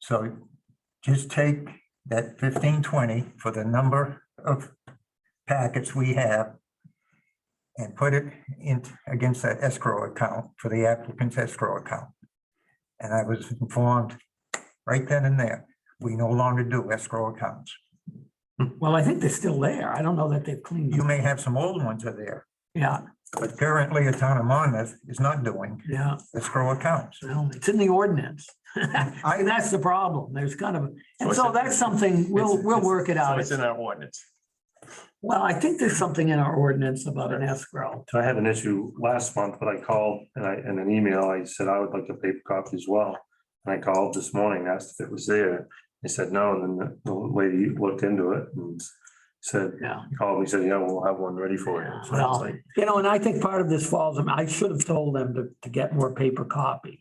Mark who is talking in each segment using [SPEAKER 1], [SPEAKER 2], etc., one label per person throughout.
[SPEAKER 1] So just take that fifteen twenty for the number of packets we have and put it in against that escrow account for the applicant's escrow account. And I was informed right then and there, we no longer do escrow accounts.
[SPEAKER 2] Well, I think they're still there. I don't know that they've cleaned
[SPEAKER 1] You
[SPEAKER 2] them.
[SPEAKER 1] may have some old ones are there,
[SPEAKER 2] Yeah,
[SPEAKER 1] but currently a town of Monmouth is not doing
[SPEAKER 2] yeah.
[SPEAKER 1] escrow accounts.
[SPEAKER 2] Well, it's in the ordinance. I, that's the problem. There's kind of,
[SPEAKER 3] So
[SPEAKER 2] and
[SPEAKER 3] it's
[SPEAKER 2] so
[SPEAKER 3] in-
[SPEAKER 2] that's something, we'll,
[SPEAKER 3] It's-
[SPEAKER 2] we'll
[SPEAKER 3] it's-
[SPEAKER 2] work it
[SPEAKER 3] So
[SPEAKER 2] out.
[SPEAKER 3] it's in our ordinance.
[SPEAKER 2] Well, I think there's something in our ordinance about an escrow.
[SPEAKER 4] So I had an issue last month, but I called and I, in an email, I said I would like a paper copy as well. And I called this morning, asked if it was there. They said no, and then the the lady looked into it and said,
[SPEAKER 2] Yeah.
[SPEAKER 4] called me, said, yeah, we'll have one ready for you. So I was
[SPEAKER 2] Well,
[SPEAKER 4] like,
[SPEAKER 2] you know, and I think part of this falls, I mean, I should have told them to, to get more paper copies.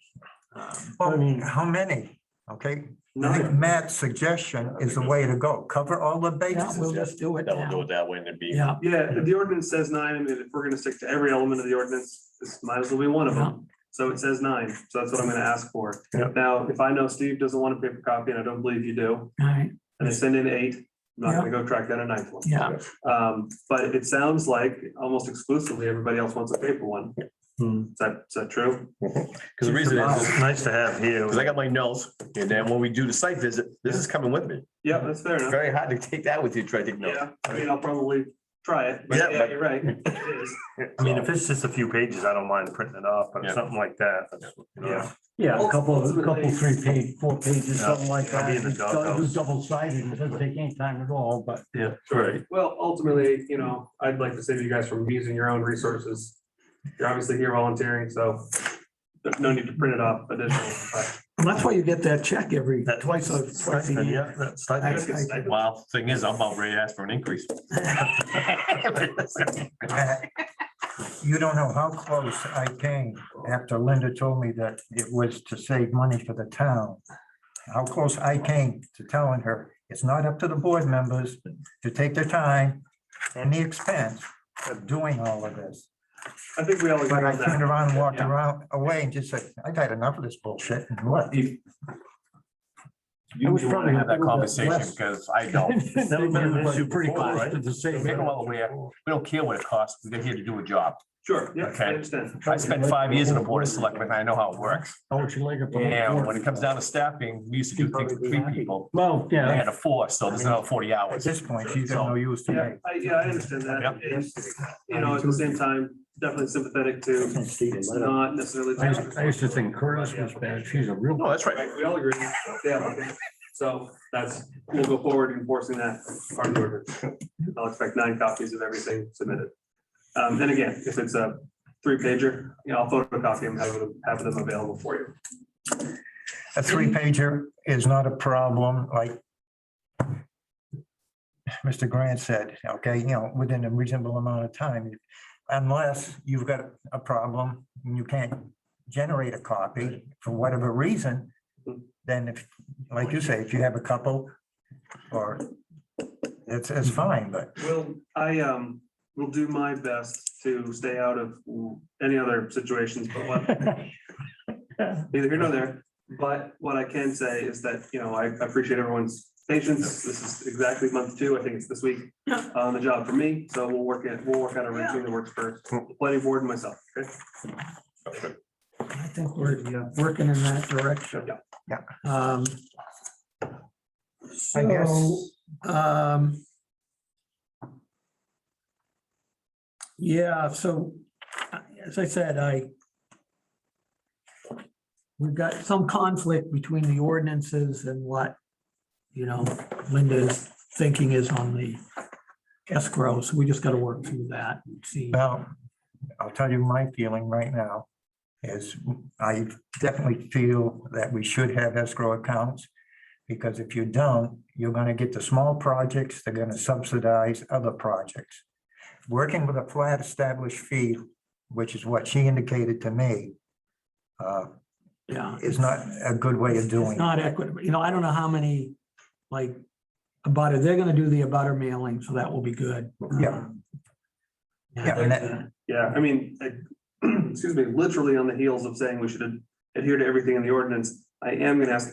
[SPEAKER 2] Um,
[SPEAKER 4] I
[SPEAKER 1] Well,
[SPEAKER 4] mean-
[SPEAKER 1] how many? Okay, I think
[SPEAKER 4] no.
[SPEAKER 1] Matt's suggestion is the way to go. Cover all the
[SPEAKER 2] Yeah,
[SPEAKER 1] bases.
[SPEAKER 2] we'll just do it
[SPEAKER 3] That will do
[SPEAKER 2] now.
[SPEAKER 3] it that way and it'd be.
[SPEAKER 2] Yeah.
[SPEAKER 5] Yeah, if the ordinance says nine, I mean, if we're gonna stick to every element of the ordinance, this might as well be one of them. So it says nine, so that's what I'm gonna ask for.
[SPEAKER 4] Yeah.
[SPEAKER 5] Now, if I know Steve doesn't want a paper copy, and I don't believe you do,
[SPEAKER 2] yeah, All right,
[SPEAKER 5] and I send in eight, I'm not gonna go track down a ninth one.
[SPEAKER 2] yeah.
[SPEAKER 5] Um, but it sounds like almost exclusively, everybody else wants a paper one.
[SPEAKER 4] Hmm.
[SPEAKER 5] Is that, is that true?
[SPEAKER 3] Because the reason is,
[SPEAKER 4] It's Nice to have here.
[SPEAKER 3] because I got my notes and then when we do the site visit, this is coming with me.
[SPEAKER 5] Yeah, that's fair
[SPEAKER 3] It's
[SPEAKER 5] enough.
[SPEAKER 3] very hard to take that with you, try to take notes.
[SPEAKER 5] Yeah, I mean, I'll probably try it, but
[SPEAKER 3] Yeah,
[SPEAKER 5] yeah,
[SPEAKER 3] but-
[SPEAKER 5] you're right. It is.
[SPEAKER 4] I mean, if it's just a few pages, I don't mind printing it off, but
[SPEAKER 3] Yeah.
[SPEAKER 4] something like that. that's, you know,
[SPEAKER 5] Yeah.
[SPEAKER 6] Yeah, a couple, of- a couple, three page, four pages,
[SPEAKER 4] Yeah,
[SPEAKER 6] something like
[SPEAKER 4] I'll
[SPEAKER 6] that.
[SPEAKER 4] be in the
[SPEAKER 6] It's gotta do
[SPEAKER 4] doghouse.
[SPEAKER 6] double sided, it doesn't take any time at all, but
[SPEAKER 4] Yeah, right.
[SPEAKER 5] Well, ultimately, you know, I'd like to save you guys from using your own resources. You're obviously here volunteering, so there's no need to print it off additionally. but-
[SPEAKER 2] And that's why you get that check every.
[SPEAKER 4] That twice, twice,
[SPEAKER 2] a year.
[SPEAKER 4] yeah, that's. I
[SPEAKER 2] I- I-
[SPEAKER 3] Well, thing is, I'm about ready to ask for an increase.
[SPEAKER 1] Matt, You don't know how close I came after Linda told me that it was to save money for the town. How close I came to telling her, it's not up to the board members to take the time and the expense of doing all of this.
[SPEAKER 5] I think we all agree
[SPEAKER 1] But I
[SPEAKER 5] on
[SPEAKER 1] turned
[SPEAKER 5] that.
[SPEAKER 1] around and walked
[SPEAKER 5] Yeah.
[SPEAKER 1] around away and just said, I've had enough of this bullshit and what?
[SPEAKER 3] You
[SPEAKER 6] It was
[SPEAKER 3] may want
[SPEAKER 6] probably
[SPEAKER 3] to
[SPEAKER 6] a
[SPEAKER 3] have that
[SPEAKER 6] little bit
[SPEAKER 3] conversation
[SPEAKER 6] less.
[SPEAKER 3] because I don't.
[SPEAKER 4] It's never been an issue
[SPEAKER 6] Pretty
[SPEAKER 4] before,
[SPEAKER 6] close
[SPEAKER 4] right?
[SPEAKER 6] to the same.
[SPEAKER 3] Make them all aware. We don't care what it costs. We're here to do a job.
[SPEAKER 5] Sure, yeah, I
[SPEAKER 3] Okay.
[SPEAKER 5] understand.
[SPEAKER 3] I spent five years in the board of selectmen. I know how it works.
[SPEAKER 6] Don't you like it?
[SPEAKER 3] And when it comes down to staffing, we used to do things with three people.
[SPEAKER 6] Well,
[SPEAKER 3] They
[SPEAKER 6] yeah,
[SPEAKER 3] had a four, so there's another forty
[SPEAKER 1] At
[SPEAKER 3] hours.
[SPEAKER 1] this point, she's got no use to me.
[SPEAKER 5] Yeah, I, yeah, I understand that. It's, You know, at the same time, definitely sympathetic to, it's not necessarily.
[SPEAKER 6] I used, I used to think Curtis was bad, she's a real.
[SPEAKER 3] No, Oh, that's right.
[SPEAKER 5] Right, we all agree. Yeah, okay. So that's, we'll go forward enforcing that part of the order. I'll expect nine copies of everything submitted. Um, and again, if it's a three pager, you know, I'll photocopy them, have them, have them available for you.
[SPEAKER 1] A three pager is not a problem, like Mr. Grant said, okay, you know, within a reasonable amount of time, unless you've got a problem and you can't generate a copy for whatever reason, then if, like you say, if you have a couple or it's, it's fine, but
[SPEAKER 5] Well, I, um, will do my best to stay out of any other situations, but what, neither here nor there. But what I can say is that, you know, I appreciate everyone's patience. This is exactly month two. I think it's this week
[SPEAKER 2] Yeah.
[SPEAKER 5] on the job for me. So we'll work it, we'll work out a routine that works for the planning board and myself. Okay.
[SPEAKER 2] I think we're yeah, working in that direction.
[SPEAKER 5] Yeah.
[SPEAKER 2] Um.
[SPEAKER 1] I guess-
[SPEAKER 2] So, um. Yeah, so, uh, as I said, I. We've got some conflict between the ordinances and what, you know, Linda's thinking is on the escrow, so we just gotta work through that and see.
[SPEAKER 1] now, I'll tell you my feeling right now is I definitely feel that we should have escrow accounts. Because if you don't, you're gonna get the small projects, they're gonna subsidize other projects. Working with a flat established fee, which is what she indicated to me, uh,
[SPEAKER 2] Yeah.
[SPEAKER 1] is not a good way of doing.
[SPEAKER 2] It's
[SPEAKER 1] it.
[SPEAKER 2] not equitable. You know, I don't know how many, like, abutter, they're gonna do the abutter mailing, so that will be good. Um,
[SPEAKER 1] Yeah. Yeah, and that-
[SPEAKER 5] Yeah, I mean, I- excuse me, literally on the heels of saying we should adhere to everything in the ordinance, I am going to ask the